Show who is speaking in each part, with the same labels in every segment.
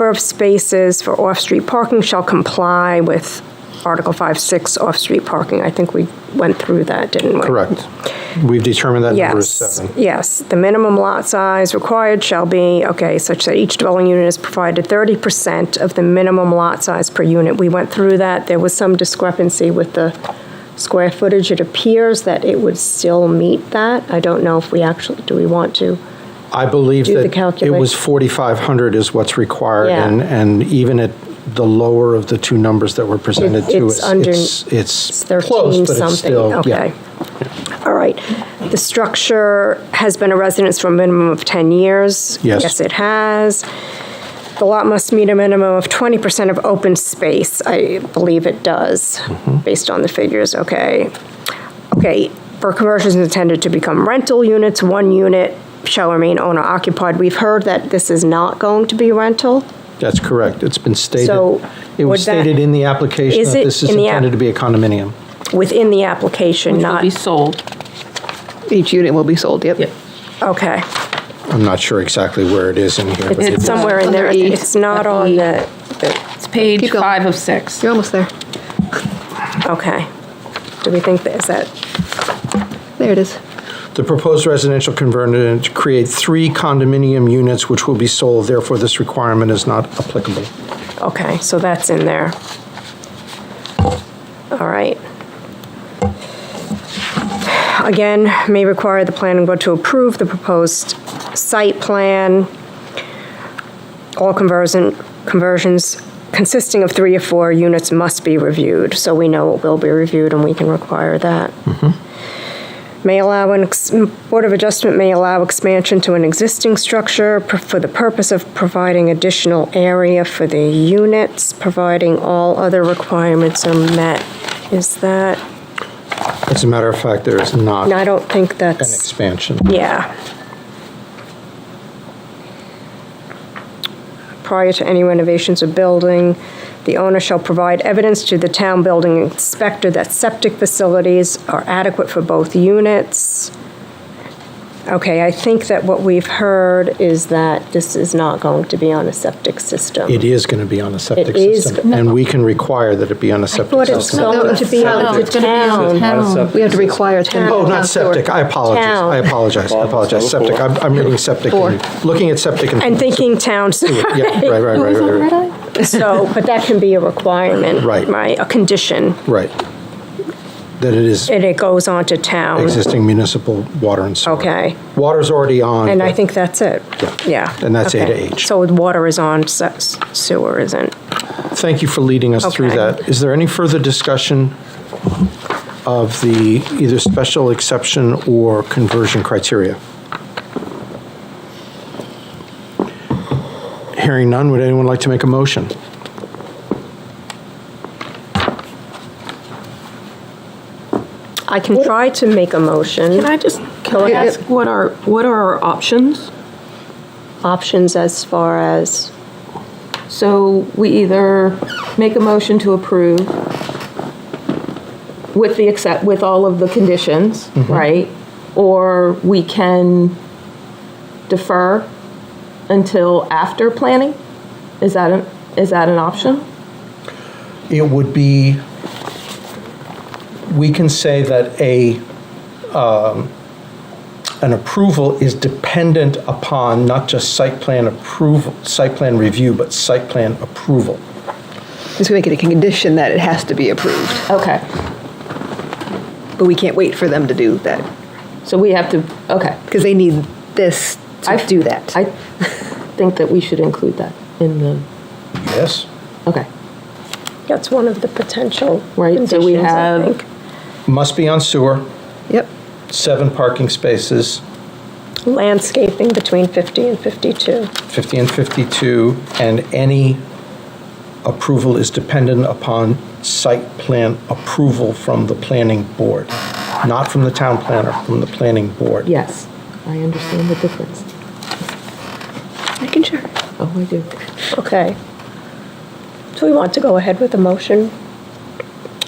Speaker 1: number of spaces for off-street parking shall comply with Article 5, 6, off-street parking. I think we went through that, didn't we?
Speaker 2: Correct. We've determined that number is
Speaker 1: Yes,
Speaker 2: seven.
Speaker 1: yes. The minimum lot size required shall be, okay, such that each dwelling unit is provided 30% of the minimum lot size per unit. We went through that. There was some discrepancy with the square footage. It appears that it would still meet that. I don't know if we actually, do we want to?
Speaker 2: I believe
Speaker 1: Do the
Speaker 2: that it
Speaker 1: calculation.
Speaker 2: was 4,500 is what's required,
Speaker 1: Yeah.
Speaker 2: and, and even at the lower of the two numbers that were presented to
Speaker 1: it's
Speaker 2: us,
Speaker 1: under-
Speaker 2: it's,
Speaker 1: It's
Speaker 2: it's
Speaker 1: 13
Speaker 2: close, but it's
Speaker 1: something,
Speaker 2: still,
Speaker 1: okay.
Speaker 2: yeah.
Speaker 1: All right. The structure has been a residence for a minimum of 10 years?
Speaker 2: Yes.
Speaker 1: Yes, it has. The lot must meet a minimum of 20% of open space. I believe it does,
Speaker 2: Mm-hmm.
Speaker 1: based on the figures, okay. Okay, for conversions intended to become rental units, one unit shall remain owner occupied. We've heard that this is not going to be rental.
Speaker 2: That's correct. It's been stated.
Speaker 1: So
Speaker 2: It was
Speaker 1: would that-
Speaker 2: stated in the application
Speaker 1: Is
Speaker 2: that
Speaker 1: it
Speaker 2: this is
Speaker 1: in the app-
Speaker 2: intended to be a condominium.
Speaker 1: Within the application,
Speaker 3: will
Speaker 1: not,
Speaker 3: be sold.
Speaker 4: Each unit will be sold, yep.
Speaker 1: okay.
Speaker 2: I'm not sure exactly where it is in here. but
Speaker 1: It's
Speaker 2: it-
Speaker 1: somewhere in there.
Speaker 4: Under E.
Speaker 1: It's not on the,
Speaker 3: It's page
Speaker 4: Keep going.
Speaker 3: five of six.
Speaker 4: You're almost there.
Speaker 1: okay. Do we think that, is that,
Speaker 4: There it is.
Speaker 2: The proposed residential conversion to create three condominium units which will be sold, therefore this requirement is not applicable.
Speaker 1: okay, so that's in there. All right. Again, may require the planning board to approve the proposed site plan. All conversion, conversions consisting of three or four units must be reviewed, so we know it will be reviewed and we can require that. may allow an, ex- Board of Adjustment may allow expansion to an existing structure per- for the purpose of providing additional area for the units, providing all other requirements are met. Is that,
Speaker 2: As a matter of fact, there is not
Speaker 1: no,
Speaker 2: an
Speaker 1: I don't think that's,
Speaker 2: expansion.
Speaker 1: yeah. Prior to any renovations or building, the owner shall provide evidence to the town building inspector that septic facilities are adequate for both units. Okay, I think that what we've heard is that this is not going to be on a septic system.
Speaker 2: It is going to be on a septic
Speaker 1: is-
Speaker 2: system, and we can require that it be on a septic
Speaker 1: But it's
Speaker 2: system.
Speaker 1: going to be on the town.
Speaker 4: Oh, We have to require 10.
Speaker 2: Oh, not septic, I apologize, I
Speaker 1: Town.
Speaker 2: apologize, I apologize, septic, I'm I'm reading septic, and looking at septic and.
Speaker 1: And thinking town,
Speaker 2: Yeah, right, right, right, right, right,
Speaker 1: so, but that can be a requirement.
Speaker 2: Right.
Speaker 1: Right, a condition.
Speaker 2: right. That it is
Speaker 1: And it goes on to town.
Speaker 2: existing municipal water and sewer.
Speaker 1: Okay.
Speaker 2: Water's already on.
Speaker 1: And I
Speaker 2: but-
Speaker 1: think that's it.
Speaker 2: Yeah.
Speaker 1: Yeah.
Speaker 2: And that's A to
Speaker 1: okay.
Speaker 2: H.
Speaker 1: So water is on, se- sewer isn't.
Speaker 2: Thank you for leading us through
Speaker 1: Okay.
Speaker 2: that. Is there any further discussion of the either special exception or conversion criteria? Hearing none, would anyone like to make a motion?
Speaker 1: I can try to make a motion,
Speaker 3: Can I just, can I
Speaker 4: ahead.
Speaker 3: ask what are, what are our options?
Speaker 1: options as far as,
Speaker 3: So we either make a motion to approve with the accept, with all of the conditions, right? Or we can defer until after planning? Is that an, is that an option?
Speaker 2: It would be, we can say that a, um, an approval is dependent upon not just site plan approval, site plan review, but site plan approval.
Speaker 4: Just make it a condition that it has to be approved,
Speaker 3: Okay,
Speaker 4: but we can't wait for them to do that,
Speaker 3: so we have to, okay.
Speaker 4: because they need this to
Speaker 3: I-
Speaker 4: do that.
Speaker 3: I think that we should include that in the,
Speaker 2: Yes?
Speaker 3: okay,
Speaker 1: that's one of the potential
Speaker 3: Right,
Speaker 1: conditions,
Speaker 3: so we
Speaker 1: I
Speaker 3: have-
Speaker 1: think.
Speaker 2: Must be on sewer,
Speaker 4: Yep,
Speaker 2: seven parking spaces,
Speaker 1: Landscaping between 50 and 52.
Speaker 2: 50 and 52, and any approval is dependent upon site plan approval from the planning board, not from the town planner, from the planning board.
Speaker 3: yes, I understand the difference.
Speaker 4: making sure.
Speaker 3: Oh, I do.
Speaker 1: Okay. Do we want to go ahead with the motion?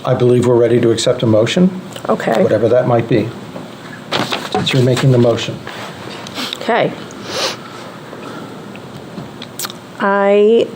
Speaker 2: I believe we're ready to accept a motion,
Speaker 1: Okay.
Speaker 2: whatever that might be. Since you're making the motion.
Speaker 1: Okay. I